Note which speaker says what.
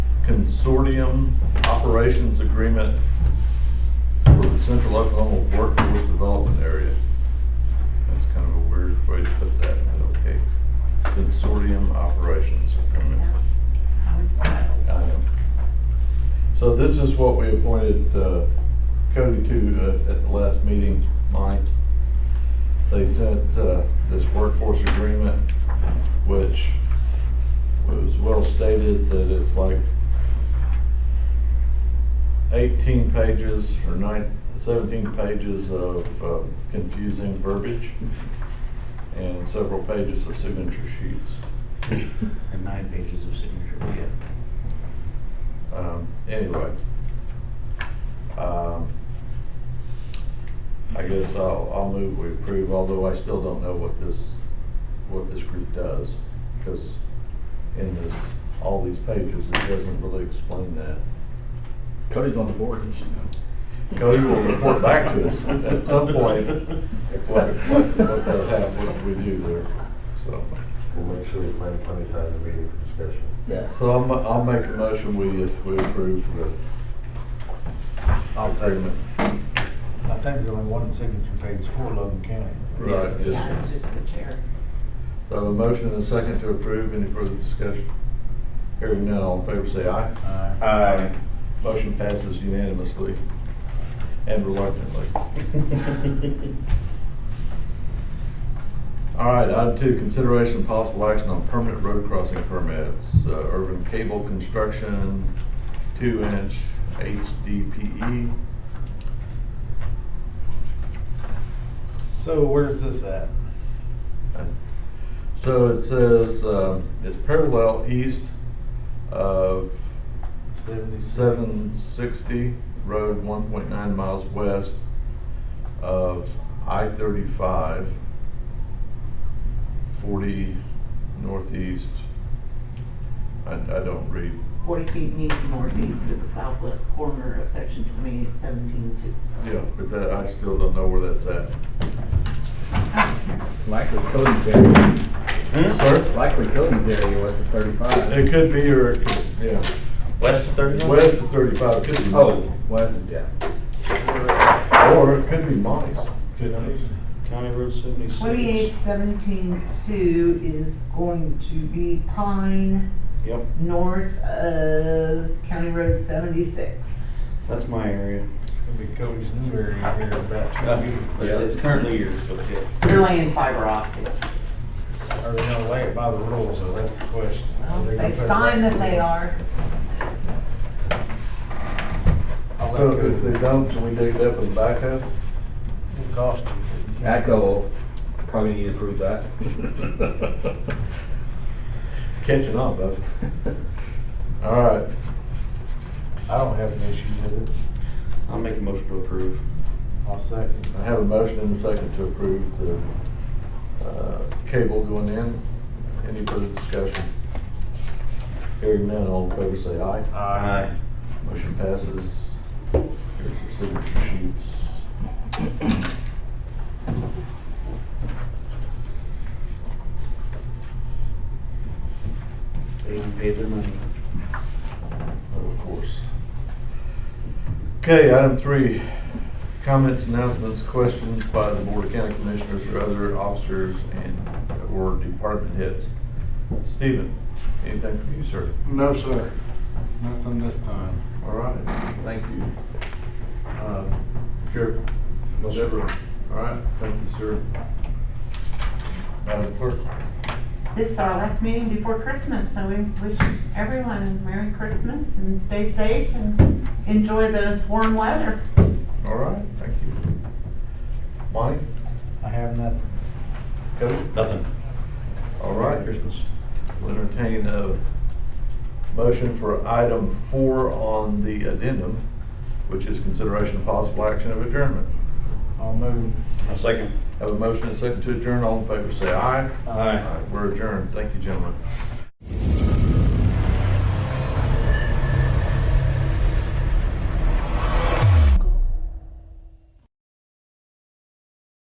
Speaker 1: Consortium Operations Agreement for the Central Oklahoma Workforce Development Area. That's kind of a weird way to put that, but okay. Consortium Operations Agreement.
Speaker 2: I would say.
Speaker 1: I am. So this is what we appointed uh, Cody to uh, at the last meeting, Mike. They sent uh, this workforce agreement, which was well stated that it's like 18 pages or nine, 17 pages of uh, confusing verbiage and several pages of signature sheets.
Speaker 3: And nine pages of signature, yeah.
Speaker 1: Um, anyway. Um, I guess I'll, I'll move we approve, although I still don't know what this, what this group does. Because in this, all these pages, it doesn't really explain that.
Speaker 4: Cody's on the board, you should know.
Speaker 1: Cody will report back to us at some point, what, what, what they have, what we do there, so.
Speaker 5: We'll make sure we plan plenty of time in the meeting for discussion.
Speaker 1: So I'll, ma- I'll make a motion, we, uh, we approve the agreement.
Speaker 6: I think there's only one signature page for Logan County.
Speaker 1: Right. yes.
Speaker 2: Yeah, it's just the chair.
Speaker 1: So I have a motion and a second to approve. Any further discussion? Hearing none, all in favor say aye.
Speaker 6: Aye.
Speaker 3: Aye.
Speaker 1: Motion passes unanimously and reluctantly. All right, item two, consideration of possible action on permanent road crossing permits. Uh, Urban cable construction, two-inch HDPE.
Speaker 6: So where's this at?
Speaker 1: So it says, um, it's parallel east of seven
Speaker 6: Seventy-seven.
Speaker 1: sixty, road one point nine miles west of I thirty-five, forty northeast. I, I don't read,
Speaker 2: Forty feet need northeast of the southwest corner of section twenty-eight seventeen two.
Speaker 1: yeah, but that, I still don't know where that's at.
Speaker 4: Likely Cody's area,
Speaker 1: Sir?
Speaker 4: likely Cody's area was the thirty-five.
Speaker 1: It could be, or it could, yeah,
Speaker 3: West of thirty-one?
Speaker 1: west of thirty-five, it could be.
Speaker 4: Oh, was, yeah.
Speaker 1: Or it could be mice.
Speaker 3: County Road seventy-six.
Speaker 2: Twenty-eight seventeen two is going to be Pine,
Speaker 3: Yep,
Speaker 2: north of County Road seventy-six.
Speaker 3: that's my area.
Speaker 6: It's gonna be Cody's new area here about two years.
Speaker 4: Yeah.
Speaker 3: It's currently yours, but yeah.
Speaker 2: They're laying fiber optic.
Speaker 6: Are they gonna lay it by the rules, though, that's the question.
Speaker 2: Well,
Speaker 6: Are they gonna
Speaker 2: They've
Speaker 6: put it
Speaker 2: signed
Speaker 6: right-
Speaker 2: that they are.
Speaker 6: I'll let
Speaker 1: So
Speaker 6: Cody-
Speaker 1: if they don't, can we dig it up with a backhoe?
Speaker 6: It'll cost you. but you can't-
Speaker 4: Echo will probably need to prove that.
Speaker 1: Catching on, bud. All right,
Speaker 6: I don't have an issue with it.
Speaker 3: I'll make a motion to approve.
Speaker 6: I'll second.
Speaker 1: I have a motion and a second to approve the uh, cable going in. Any further discussion? Hearing none, all in favor say aye.
Speaker 6: Aye.
Speaker 1: Motion passes. Here's the signature sheets.
Speaker 3: They even paid their money.
Speaker 1: Of course. Okay, item three, comments, announcements, questions by the Board of County Commissioners or other officers and or department heads. Stephen, anything from you, sir?
Speaker 7: No, sir. Nothing this time.
Speaker 1: All right, thank you. Uh, Sheriff? No, All right, thank you, sir. Madam Clerk?
Speaker 2: This is our last meeting before Christmas, so we wish everyone Merry Christmas and stay safe and enjoy the warm weather.
Speaker 1: All right, thank you. Monty?
Speaker 6: I have nothing.
Speaker 1: Cody?
Speaker 3: Nothing.
Speaker 1: All right. Christmas. We'll entertain a motion for item four on the addendum, which is consideration of possible action of adjournment.
Speaker 6: I'll move.
Speaker 3: A second.
Speaker 1: Have a motion and a second to adjourn. All in favor, say aye.
Speaker 3: Aye.
Speaker 1: We're adjourned. Thank you, gentlemen.